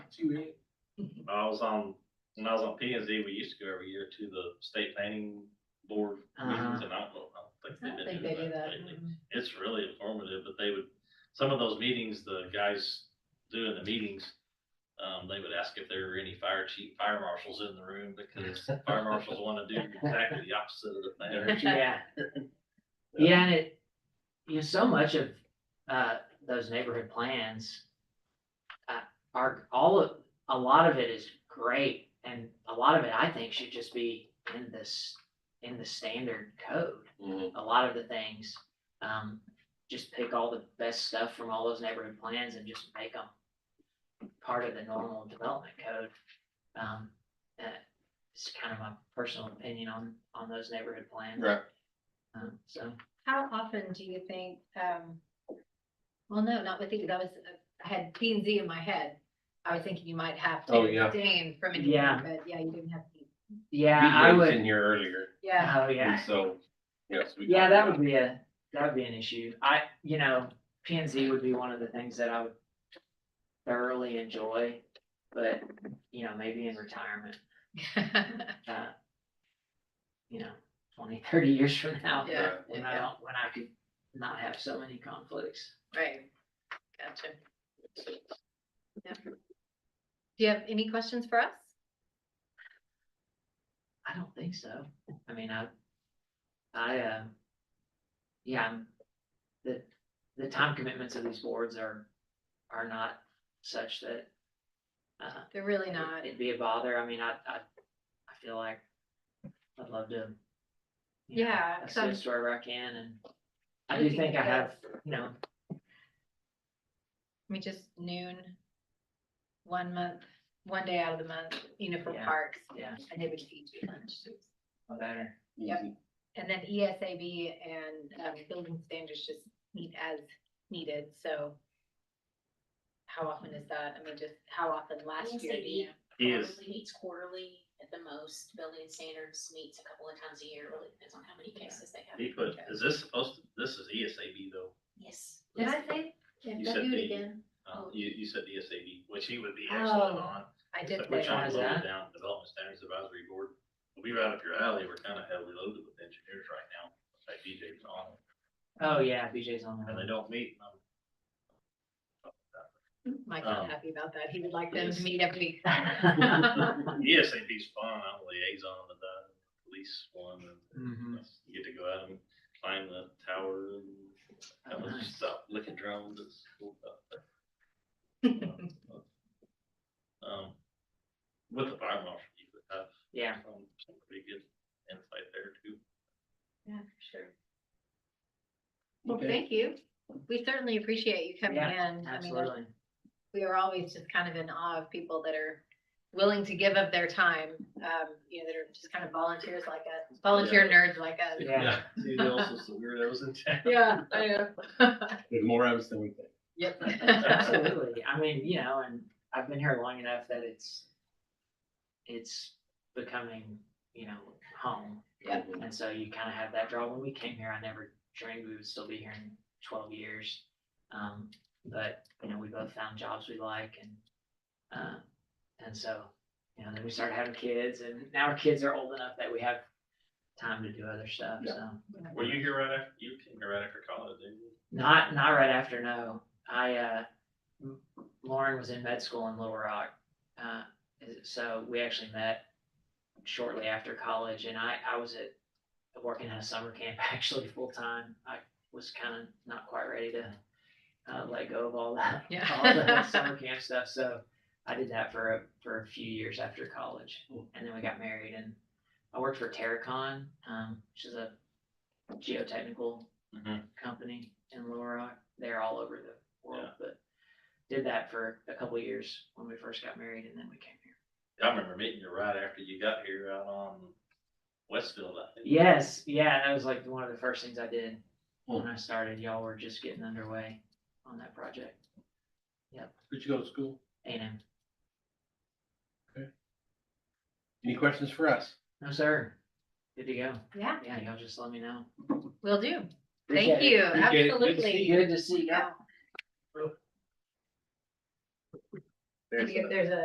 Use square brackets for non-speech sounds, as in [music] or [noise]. you ready? When I was on, when I was on P and Z, we used to go every year to the state planning board meetings, [laughs] Uh-huh. and I don't know, I don't I think they've don't think been they do doing that. that lately. It's really informative, but they would, some of those meetings, the guys doing the meetings, um, they would ask if there were any fire chief, fire marshals in the room, [laughs] because Mm-hmm. fire marshals wanna do exactly the opposite of the thing. Yeah. Yeah, and it, you know, so much of, uh, those neighborhood plans. Uh, are, all of, a lot of it is great, and a lot of it, I think, should just be in this, in the standard code. Mhm. A lot of the things, um, just pick all the best stuff from all those neighborhood plans and just make them. Part of the normal development code, um, uh, it's kind of my personal opinion on, on those neighborhood plans. Right. Um, so. How often do you think, um, well, no, not with these, I was, I had P and Z in my head. I was thinking you might have to Oh, yeah. abstain from it, Yeah. but yeah, you didn't have to. Yeah, I He was would. In here earlier, Yeah, Oh, and yeah. so, yes. we Yeah, talked that about- would be a, that would be an issue. I, you know, P and Z would be one of the things that I would thoroughly enjoy, but, you know, maybe in retirement, uh, you know, 20, 30 years from now, Yeah. Right. when I don't, when I could not have so many conflicts. [laughs] right. Gotcha. Yeah. Do you have any questions for us? I don't think so. I mean, I, I, uh, yeah, I'm, the, the time commitments of these boards are, are not such that, uh, They're really not. it'd be a bother. I mean, I, I, I feel like I'd love to. you know, Yeah, 'cause I'm- Assist wherever I can and I do Looking think I at have, this. you know, I mean, just noon, one month, one day out of the month, you know, for Yeah. parks. Yeah. And they would feed you lunch. too. a better, Yep. Easy. And then E ESAB and um, building standards just meet as needed, so. How often is that? I mean, just how often last year? do you know? He is, Probably meets quarterly at the most, building standards meets a couple of times a year, really depends on how many cases they have. he put, is this supposed to, this is E ESAB though? Yes. Did I say? Yeah, You don't said do the- it again. Uh, Oh. you, you said ESAB, which he would be excellent Oh. on. I did We're say trying that. to load Why is that? it down, Development Standards Advisory Board, we right up your alley, we're kind of heavily loaded with engineers right now, like DJ's on, oh yeah, BJ's on and they that. don't meet. um, Mike's not Um, happy about that. He would like them yes. to meet every week. [laughs] [laughs] ESAB's fun, I'm a liaison with the police one, and Mhm. you get to go out and climb the tower and Oh, kind of nice. stuff, look at drones, it's cool stuff. Um, with the fire marshal, you could have Yeah, some, some pretty good insight there too. Yeah, for sure. Well, Okay. thank you. We certainly appreciate you coming in. Yeah, I mean, there's [laughs] absolutely. we are always just kind of in awe of people that are willing to give up their time, um, you know, that are just kind of volunteers like us, volunteer nerds like us. Yeah. See, there also some weirdos in town. Yeah, I know. There's more of us than we think. Yep. Absolutely. I mean, you know, and I've been here long enough that it's, it's becoming, you know, home. Yeah. And so you kind of have that draw. When we came here, I never dreamed we would still be here in twelve years. Um, but, you know, we both found jobs we like and, uh, and so, you know, then we started having kids and now our kids are old enough that we have time to do other stuff, Yeah. so. Were you here right after, you came here right after college, didn't you? Not, not right after, no. I, uh, M- Lauren was in med school in Little Rock. Uh, so we actually met shortly after college and I, I was at, working at a summer camp [laughs] actually full time. I was kind of not quite ready to, uh, let go of all that, [laughs] all the Yeah. summer camp stuff. So I did that for, a for a few years after college. And then we got married and I worked for Terracon, um, which is a geotechnical Mhm. company in Little Rock. They're all over the world, Yeah. but did that for a couple of years when we first got married and then we came here. I remember meeting you right after you got here out on Westfield, I think. Yes, yeah, that was like one of the first things I did Hmm. when I started. Y'all were just getting underway on that project. Where'd you go to school? And M. Any questions for us? no, sir. Good to go. [laughs] Yeah, Yeah, y'all just let me know. will do. Appreciate Thank it. you, Appreciate it. Good to see Good to absolutely. see you. Yeah. If there's a